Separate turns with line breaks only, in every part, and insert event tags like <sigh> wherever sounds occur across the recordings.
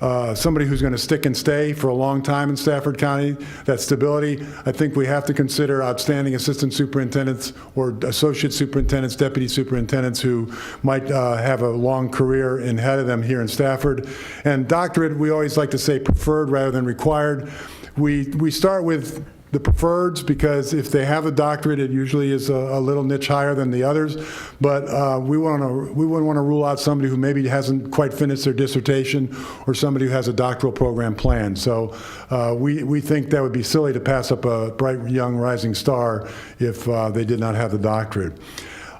uh, somebody who's going to stick and stay for a long time in Stafford County, that stability. I think we have to consider outstanding assistant superintendents or associate superintendents, deputy superintendents who might uh, have a long career in head of them here in Stafford. And doctorate, we always like to say preferred rather than required. We, we start with the preferreds because if they have a doctorate, it usually is a, a little niche higher than the others. But uh, we want to we wouldn't want to rule out somebody who maybe hasn't quite finished their dissertation or somebody who has a doctoral program planned. So uh, we we think that would be silly to pass up a bright young rising star if uh, they did not have the doctorate.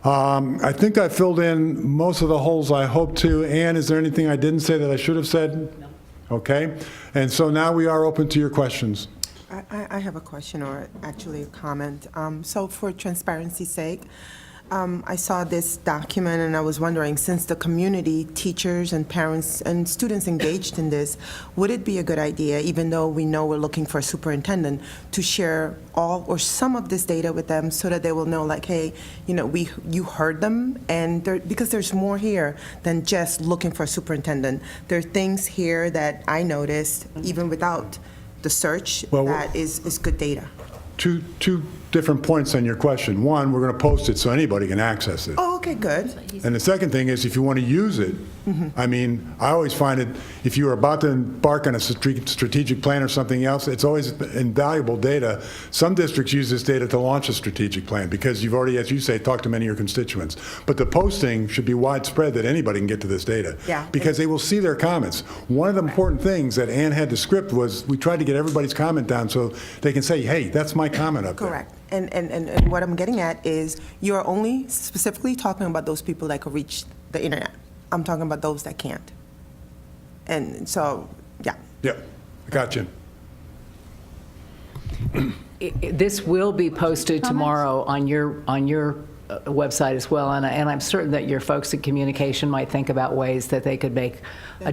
Um, I think I filled in most of the holes I hoped to. Ann, is there anything I didn't say that I should have said? No. Okay. And so now we are open to your questions.
I, I- I have a question or actually a comment. Um, So for transparency's sake, um, I saw this document and I was wondering, since the community, teachers and parents and students engaged in this, would it be a good idea, even though we know we're looking for a superintendent, to share all or some of this data with them so that they will know like, hey, you know, we, you heard them and there, because there's more here than just looking for a superintendent. There are things here that I noticed even without the search
Well, we're-
that is, is good data.
two, two different points on your question. One, we're going to post it so anybody can access it.
Oh, okay, good.
And the second thing is, if you want to use it,
Mm-hmm.
I mean, I always find it, if you are about to embark on a strate- strategic plan or something else, it's always invaluable data. Some districts use this data to launch a strategic plan, because you've already, as you say, talked to many of your constituents. But the posting should be widespread, that anybody can get to this data.
Yeah.
Because they will see their comments. One of the important things that Ann had to script was, we tried to get everybody's comment down, so they can say, hey, that's my comment up there.
Correct. And, and, and- and what I'm getting at is you're only specifically talking about those people that can reach the internet. I'm talking about those that can't. And so, yeah.
Yep, gotcha.
I- I- This will be posted tomorrow on your, on your uh, website as well, and I- and I'm certain that your folks at Communication might think about ways that they could make a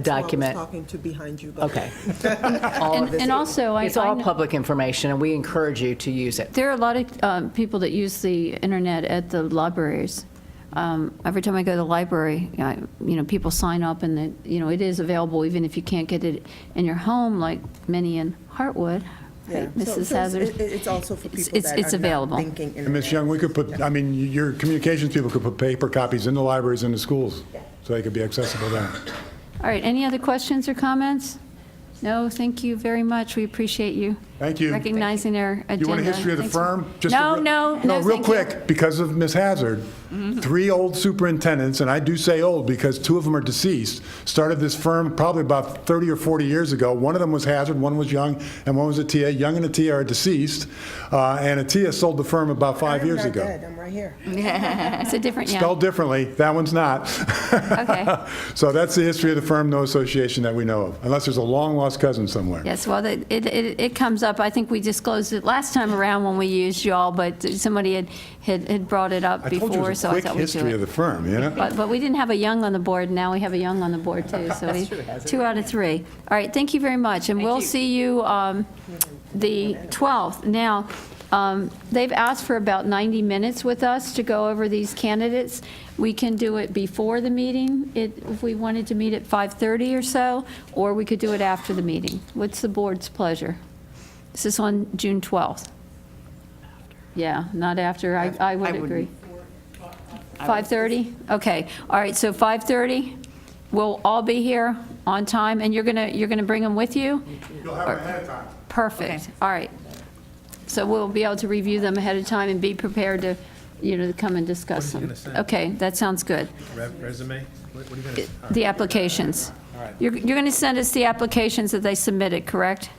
That's
document.
who I was talking to behind you. but-
Okay.
<laughs>
<laughs>
All of
And-
this-
and also, I-
It's all
I know-
public information, and we encourage you to use it.
There are a lot of um, people that use the internet at the libraries. Um, Every time I go to the library, I- you know, people sign up and it, you know, it is available even if you can't get it in your home, like many in Hartwood,
Yeah.
right,
So-
Mrs.
so it's-
Hazard?
it- It's also for
It's-
people
it's-
that
It's
are not
available.
thinking.
And Ms. Young, we could put, I mean, your communications people could put paper copies in the libraries and the schools, so they could be accessible there.
All right, any other questions or comments? No, thank you very much, we appreciate you.
Thank you.
Recognizing our agenda.
You want a history of the
Thanks.
firm? Just a
No,
real-
no, no,
No, real
thank you. Mm-hmm.
quick, because of Ms. Hazard, three old superintendents, and I do say old because two of them are deceased, started this firm probably about 30 or 40 years ago. One of them was Hazard, one was Young, and one was Atia. Young and Atia are deceased, uh, and Atia sold the firm about five years
I'm not
ago.
dead, I'm right here.
It's a different, yeah.
Spelled differently, that one's not.
Okay.
<laughs> So that's the history of the firm, no association that we know of, unless there's a long-lost cousin somewhere.
Yes, well, it, it, it it comes up, I think we disclosed it last time around when we used y'all, but somebody had, had, had brought it up
I told you
before,
it's a
so I
quick
thought we'd do
history of the
it.
firm, you know?
But, but we didn't have a young on the board, now we have a young on the board too, <laughs> so we, two out of three. All right, thank you very much, and we'll see you, um, the 12th. Now, um, they've asked for about 90 minutes with us to go over these candidates. We can do it before the meeting, it, if we wanted to meet at 5:30 or so, or we could do it after the meeting. What's the board's pleasure? This is on June 12th. Yeah, not after, I, I would agree. 5:30? Okay, all right, so 5:30, we'll all be here on time, and you're gonna, you're gonna bring them with you?
You'll have it ahead of time.
Perfect, all right. So we'll be able to review them ahead of time and be prepared to, you know, to come and discuss
What are you
them.
gonna send?
Okay, that sounds good.
Re- Resume? What what are you going to?
The applications. You're, you're gonna send us the applications that they submitted, correct?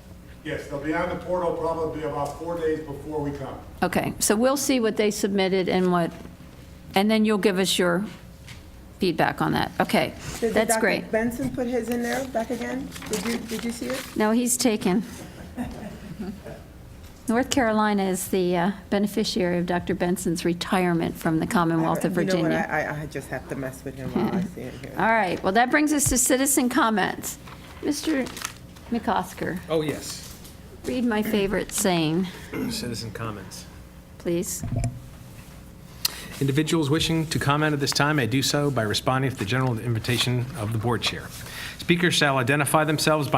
Yes, they'll be on the portal probably about four days before we come.
Okay, so we'll see what they submitted and what, and then you'll give us your feedback on that. Okay,
Did
that's
Dr.
great.
Benson put his in there back again? Did you, did you see it?
No, he's taken. North Carolina is the uh, beneficiary of Dr. Benson's retirement from the Commonwealth of
You know what,
Virginia.
I, I- I just have to mess with him while I see him here.
All right, well, that brings us to citizen comments. Mr. McCosker,
Oh, yes.
read my favorite saying,
Citizen comments.
please.
Individuals wishing to comment at this time may do so by responding to the general invitation of the board chair. Speakers shall identify themselves by